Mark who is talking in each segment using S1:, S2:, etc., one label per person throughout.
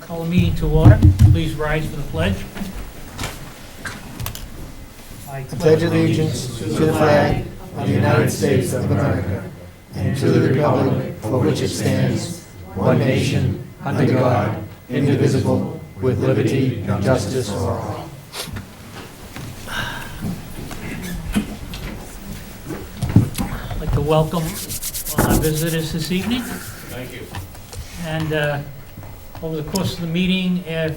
S1: Call a meeting to order. Please rise for the pledge. I
S2: pledge allegiance to the flag of the United States of America and to the republic for which it stands, one nation, under God, indivisible, with liberty and justice for all.
S1: I'd like to welcome all our visitors this evening. Thank you. And uh, over the course of the meeting, if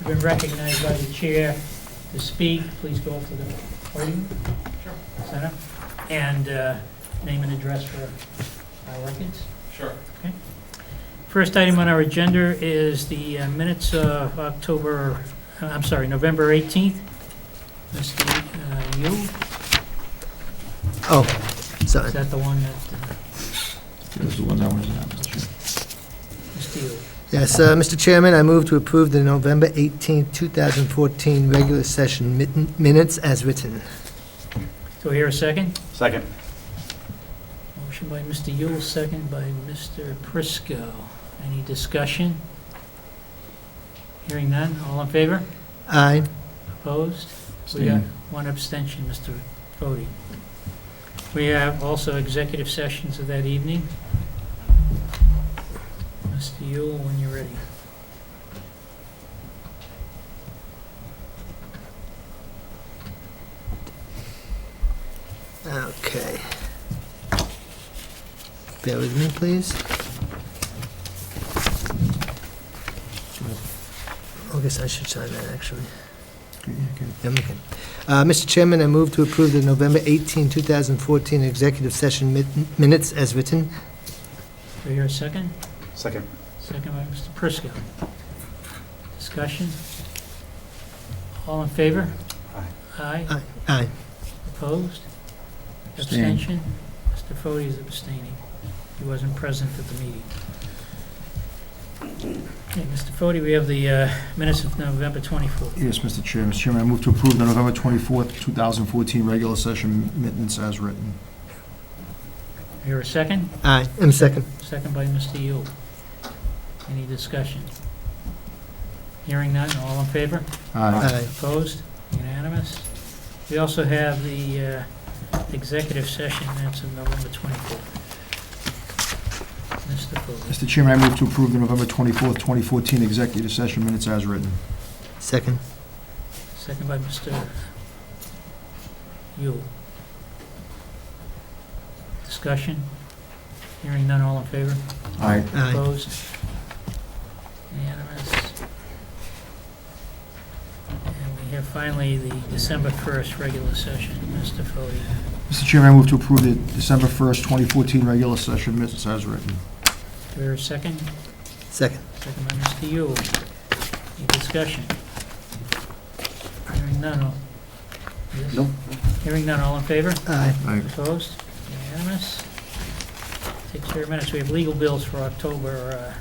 S1: you've been recognized by the chair to speak, please go up to the podium. Center. And uh, name and address for our records.
S3: Sure.
S1: First item on our agenda is the uh, minutes of October, uh, I'm sorry, November 18th. Mr. uh, Yu,
S2: Oh, sorry.
S1: is that the one that, uh,
S3: That's the one that was on, Mr. Chair.
S1: Mr. Yu?
S2: Yes, uh, Mr. Chairman, I move to approve the November 18, 2014 regular session min- minutes as written.
S1: So here a second?
S3: Second.
S1: Motion by Mr. Yule, second by Mr. Prisco. Any discussion? Hearing none, all in favor?
S2: Aye.
S1: Opposed? We got one abstention, Mr. Fode. We have also executive sessions of that evening. Mr. Yule, when you're ready.
S2: Okay. Bear with me, please. I guess I should sign that, actually. Yeah, I'm looking. Uh, Mr. Chairman, I move to approve the November 18, 2014 executive session min- minutes as written.
S1: Do I hear a second?
S3: Second.
S1: Second by Mr. Prisco. Discussion? All in favor? Aye. Aye?
S2: Aye. Aye.
S1: Opposed?
S3: Abstain.
S1: Abstention? Mr. Fode is abstaining. He wasn't present at the meeting. Okay, Mr. Fode, we have the uh, minutes of November 24th.
S4: Yes, Mr. Chair. Mr. Chairman, I move to approve the November 24th, 2014 regular session minutes as written.
S1: Here a second?
S2: Aye. I'm second.
S1: Second by Mr. Yule. Any discussion? Hearing none, all in favor?
S4: Aye.
S2: Aye.
S1: Opposed? Unanimous? We also have the uh, executive session minutes of November 24th. Mr. Fode,
S4: Mr. Chairman, I move to approve the November 24th, 2014 executive session minutes as written.
S2: Second.
S1: second by Mr. Yule. Discussion? Hearing none, all in favor?
S4: Aye.
S2: Aye.
S1: Opposed? Unanimous? And we have finally the December 1st regular session. Mr. Fode,
S4: Mr. Chairman, I move to approve the December 1st, 2014 regular session minutes as written.
S1: do we hear a second?
S2: Second.
S1: Second by Mr. Yule. Any discussion? Hearing none, all... Yes?
S3: No.
S1: Hearing none, all in favor?
S2: Aye.
S4: Aye.
S1: Opposed? Unanimous? Takes care of minutes. We have legal bills for October, uh,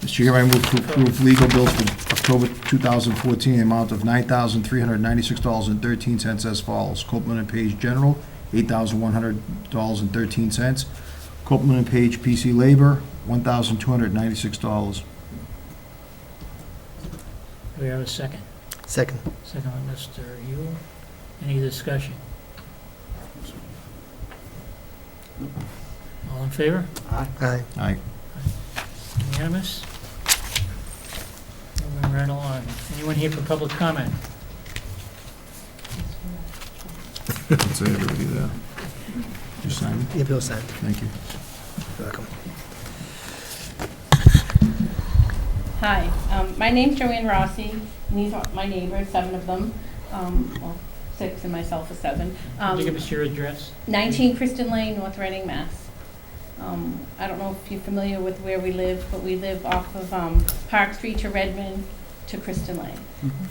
S4: Mr. Chairman, I move to approve legal bills for October 2014, the amount of $9,396.13 as follows. Copeland and Page General, $8,100.13. Copeland and Page PC Labor, $1,296.
S1: uh, we have a second.
S2: Second.
S1: Second by Mr. Yule. Any discussion? All in favor?
S2: Aye.
S4: Aye.
S1: Unanimous? Moving right along. Anyone here for public comment?
S4: That's it, everybody there. You sign it?
S2: Your bill signed.
S4: Thank you.
S2: You're welcome.
S5: Hi, um, my name's Joanne Rossi, and these are my neighbors, seven of them, um, well, six and myself is seven.
S1: Could you
S5: Um,
S1: give us your address?
S5: 19 Kristen Lane, North Reading, Mass. Um, I don't know if you're familiar with where we live, but we live off of um, Park Street to Redmond to Kristen Lane.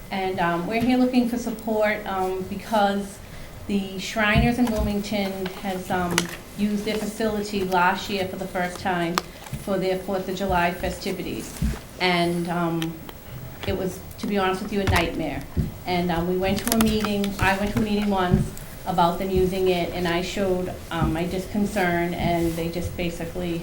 S5: And um, we're here looking for support um, because the Shriners in Wilmington has um, used their facility last year for the first time for their Fourth of July festivities. And um, it was, to be honest with you, a nightmare. And um, we went to a meeting, I went to a meeting once, about them using it, and I showed um, my just concern, and they just basically